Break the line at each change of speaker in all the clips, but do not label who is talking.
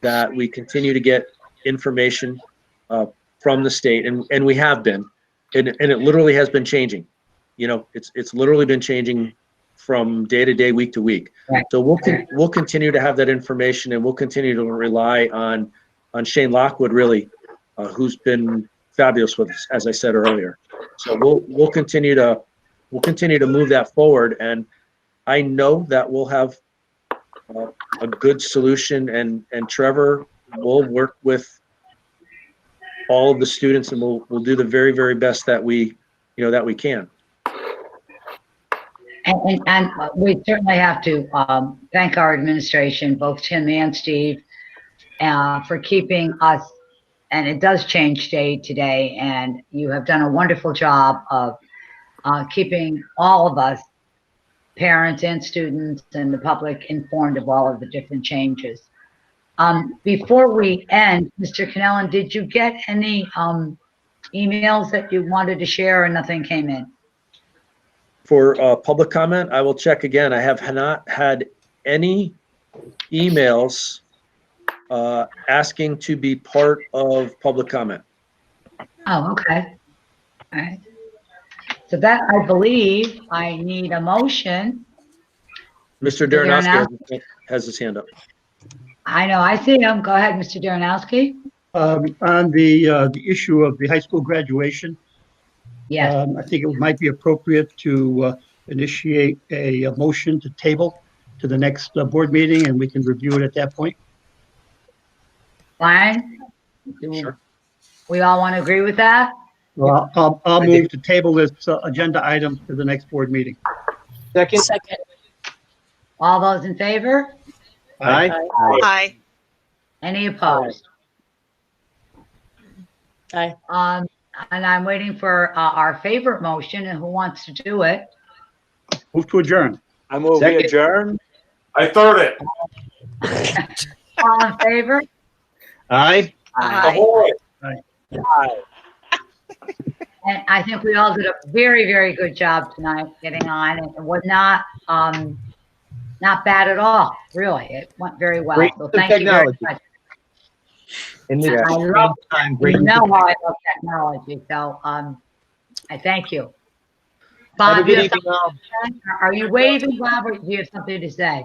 that we continue to get information uh, from the state, and, and we have been. And, and it literally has been changing. You know, it's, it's literally been changing from day to day, week to week.
Right.
So we'll, con- we'll continue to have that information and we'll continue to rely on, on Shane Lockwood, really, uh, who's been fabulous with us, as I said earlier. So we'll, we'll continue to, we'll continue to move that forward. And I know that we'll have uh, a good solution and, and Trevor will work with all of the students and we'll, we'll do the very, very best that we, you know, that we can.
And, and, and we certainly have to, um, thank our administration, both Tim and Steve, uh, for keeping us, and it does change day to day, and you have done a wonderful job of, uh, keeping all of us, parents and students and the public informed of all of the different changes. Um, before we end, Mr. Cannellan, did you get any, um, emails that you wanted to share or nothing came in?
For uh, public comment, I will check again. I have not had any emails uh, asking to be part of public comment.
Oh, okay. All right. So that, I believe, I need a motion.
Mr.
Darren
Darrenowski has his hand up.
I know, I see him. Go ahead, Mr. Darrenowski.
Um, on the, uh, the issue of the high school graduation,
Yes,
um, I think it might be appropriate to, uh, initiate a, a motion to table to the next, uh, board meeting and we can review it at that point.
fine.
Sure.
We all want to agree with that?
Well, I'll, I'll
I think-
move to table this uh, agenda item to the next board meeting.
Second.
Second.
All those in favor?
Aye.
Aye.
Any opposed?
Aye.
Um, and I'm waiting for, uh, our favorite motion and who wants to do it?
Move to adjourn.
I move we
Second.
adjourn.
I third it.
All in favor?
Aye.
Aye.
Ahoy.
And I think we all did a very, very good job tonight getting on. It was not, um, not bad at all, really. It went very well.
Great
So thank you very
technology.
much.
In this
I love-
time,
You
great.
know how I love technology, so, um, I thank you.
Have a
Bob, you
good
have
evening. all.
something- are you waving, Bob, or do you have something to say?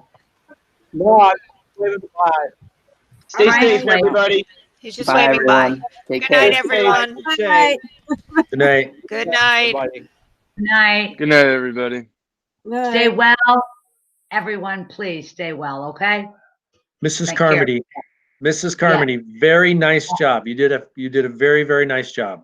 No, I'm waving goodbye. Stay
All right.
safe, everybody.
He's just waving bye.
Take
Good night,
care.
everyone.
Stay safe,
Good night.
Good night.
everybody.
Good night.
Good night, everybody.
Stay well. Everyone, please stay well, okay?
Mrs.
Thank you.
Carmody, Mrs. Carmody, very nice job. You did a, you did a very, very nice job.